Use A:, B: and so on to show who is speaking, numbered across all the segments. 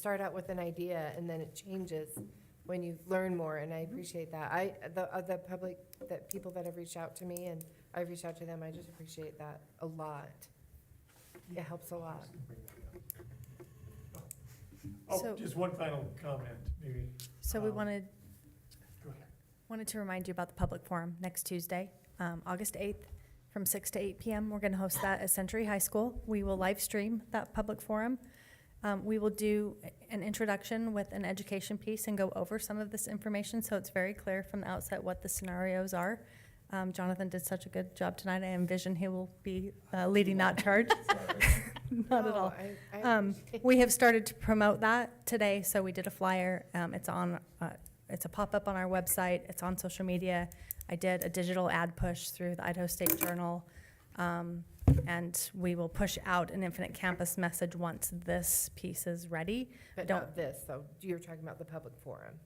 A: start out with an idea and then it changes when you learn more, and I appreciate that. I, the, uh, the public, the people that have reached out to me and I've reached out to them, I just appreciate that a lot. It helps a lot.
B: So-
C: Oh, just one final comment, maybe.
B: So we
C: Um,
B: wanted,
C: Go ahead.
B: wanted to remind you about the public forum next Tuesday, um, August 8th, from 6 to 8 PM. We're going to host that at Century High School. We will live stream that public forum. Um, We will do an introduction with an education piece and go over some of this information, so it's very clear from the outset what the scenarios are. Um, Jonathan did such a good job tonight. I envision he will be uh, leading that charge. Not
A: No,
B: at
A: Oh,
B: all.
A: I- I
B: Um,
A: appreciate-
B: We have started to promote that today, so we did a flyer. Um, It's on, uh, it's a pop-up on our website, it's on social media. I did a digital ad push through the Idaho State Journal. um, And we will push out an Infinite Campus message once this piece is ready.
A: But
B: don't-
A: not this, though. You're talking about the public forum.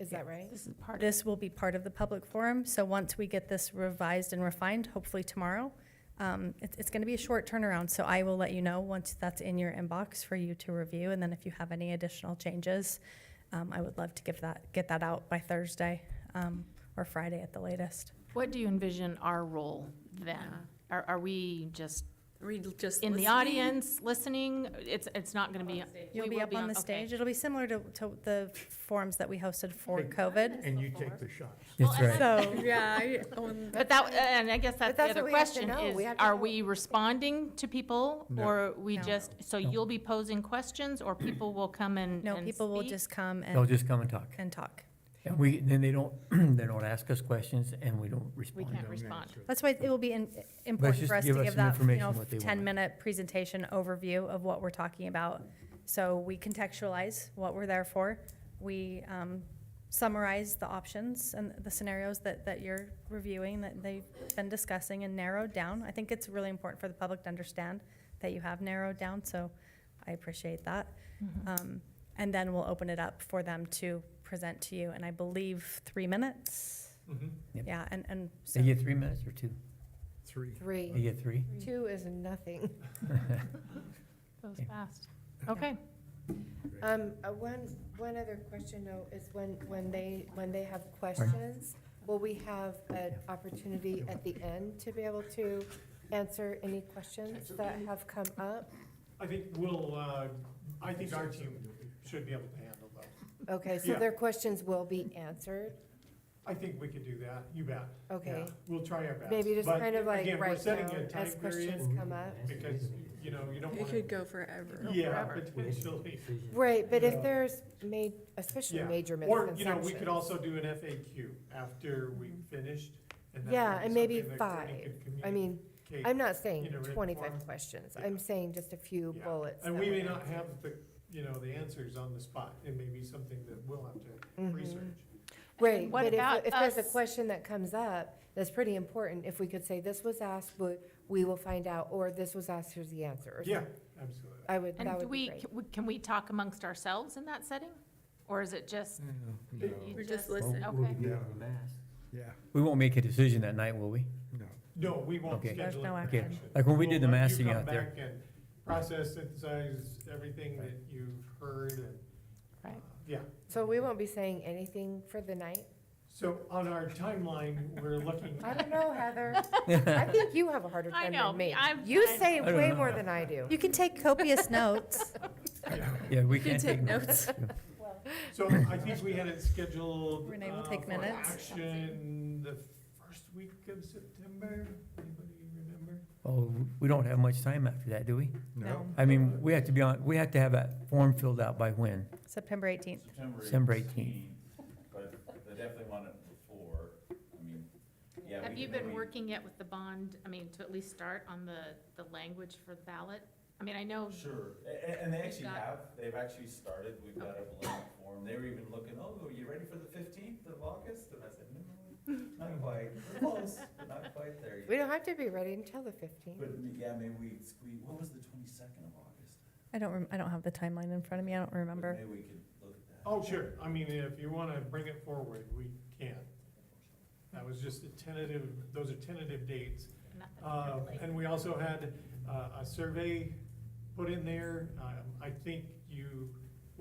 A: Is that right?
D: This is part of,
B: This will be part of the public forum, so once we get this revised and refined, hopefully tomorrow, um, it's, it's gonna be a short turnaround, so I will let you know once that's in your inbox for you to review, and then if you have any additional changes, um, I would love to give that, get that out by Thursday, um, or Friday at the latest.
D: what do you envision our role then?
E: Yeah.
D: Are, are we just
E: Read just
D: in the
E: listening?
D: audience, listening? It's, it's not gonna be. we
B: You'll be
D: will
B: up on the
D: okay.
B: stage, it'll be similar to, to the forums that we hosted for
C: Big-
B: COVID.
C: And you take the shots.
D: Well,
F: That's
D: and
F: right.
B: So,
E: Yeah, I own
D: But that, and I guess that's the
A: that's
D: other
A: what we have to
D: question
A: know.
D: is,
A: We have to
D: are
A: know.
D: we responding to people?
C: No.
D: Or we
B: No.
D: just, so
F: No.
D: you'll be posing questions or people will come and,
B: no,
D: and
B: people will
D: speak?
B: just come
F: They'll
B: and,
F: just come and talk.
B: and talk.
F: And we, then they don't, they don't ask us questions and we don't
D: We
F: respond to
D: can't
F: them.
D: respond.
B: That's why it will be in- important
F: just
B: for us to
F: give us
B: give
F: some
B: that, you
F: information
B: know,
F: what they want.
B: ten-minute presentation overview of what we're talking about. So we contextualize what we're there for. We um, summarize the options and the scenarios that, that you're reviewing, that they've been discussing and narrowed down. I think it's really important for the public to understand that you have narrowed down, so I appreciate that. Um, And then we'll open it up for them to present to you, and I believe three minutes?
C: Mhm.
F: Yep.
B: Yeah, and, and. so-
F: They get three minutes or two?
C: Three.
F: They
A: Three.
F: get three?
A: Two is nothing.
D: Goes
F: Yeah.
D: fast. Okay.
A: Um, uh, one, one other question though, is when, when they, when they have questions, will we have an opportunity at the end to be able to answer any questions that have come up?
C: I think we'll, uh, I think our team should be able to handle that.
A: Okay, so
C: Yeah.
A: their questions will be answered,
C: I think we could do that, you bet.
A: okay?
C: Yeah, We'll try our best.
A: Maybe just
C: But
A: kind of like
C: again, we're
A: right
C: setting
A: now,
C: a time
A: as questions
C: period
A: come up.
C: Because, you know, you don't
E: It
C: want
E: could
C: to,
E: go forever.
C: yeah,
D: forever.
C: potentially.
A: Right, but
C: Yeah.
A: if there's made, especially
C: Yeah.
A: major
C: Or,
A: misconceptions.
C: you know, we could also do an FAQ after we finished. and that
A: Mm-hmm. Yeah,
C: would be
A: and maybe
C: something that Courtney
A: five.
C: could
A: I mean,
C: communicate.
A: I'm not
C: In
A: saying
C: a written form?
A: twenty-five questions,
C: Yeah.
A: I'm saying just a few
C: Yeah.
A: bullets.
C: And
A: that
C: we
A: would
C: may not
A: answer.
C: have the, you know, the answers on the spot. It may be something that we'll have to
A: Mhm.
C: research.
A: Right,
D: What
A: but if,
D: about
A: if there's a
D: us?
A: question that comes up, that's pretty important, if we could say, this was asked, but we will find out, or this was asked, here's the answer. or
C: Yeah,
A: something.
C: absolutely.
A: I would,
D: And
A: that
D: do
A: would be
D: we,
A: great.
D: can we- can we talk amongst ourselves in that setting? Or is it just?
F: Mm.
D: you
E: We're just listening.
D: Okay.
F: We won't make a decision that night, will we?
C: No, we won't
F: Okay.
B: There's
C: schedule
B: no
C: it for
B: action.
C: action.
F: Like when we
C: We'll
F: did the
C: let you
F: massing
C: come
F: out there.
C: back and Process, synthesize everything that you've heard and.
D: Right.
C: uh, Yeah,
A: So we won't be saying anything for the night?
C: so on our timeline, we're looking,
A: I don't know, Heather. I think you have a harder
D: I
A: time
D: know,
A: than me.
D: I'm-
A: You
D: I'm-
A: say
F: I don't
A: way
F: know.
A: more than I do.
B: You can take copious notes.
C: yeah.
F: Yeah, we
E: You can
F: can't
E: take
F: take
E: notes.
F: notes.
C: so I think we had it scheduled.
B: Renee will
C: uh,
B: take
C: for
B: minutes.
C: Action the first week of September, anybody remember?
F: Oh, we don't have much time after that, do we?
B: No.
F: I mean, we have to be on, we have to have that form filled out by when?
B: September 18th.
F: September eighteenth.
G: But they definitely want it before, I mean, yeah.
D: Have
G: we
D: you
G: can-
D: been
G: we-
D: working yet with the bond, I mean, to at least start on the, the language for the ballot? I mean, I know,
G: Sure, and, and they
D: We've
G: actually
D: got-
G: have, they've actually started, we've got a blank form, they were even looking, oh, are you ready for the fifteenth of August? And I said, no, not quite, we're close, but not quite there
A: We
G: yet.
A: don't have to be ready until the fifteenth.
G: But, yeah, maybe we squeeze, what was the twenty-second of August?
B: I don't, rem- I don't have the timeline in front of me. I don't
G: But
B: remember.
G: Maybe we could look at that.
C: Oh, sure, I mean, if you wanna bring it forward, we can. That was just a tentative, those are tentative dates.
D: nothing
C: Uh,
D: really.
C: And we also had uh, a survey put in there. Um, I think you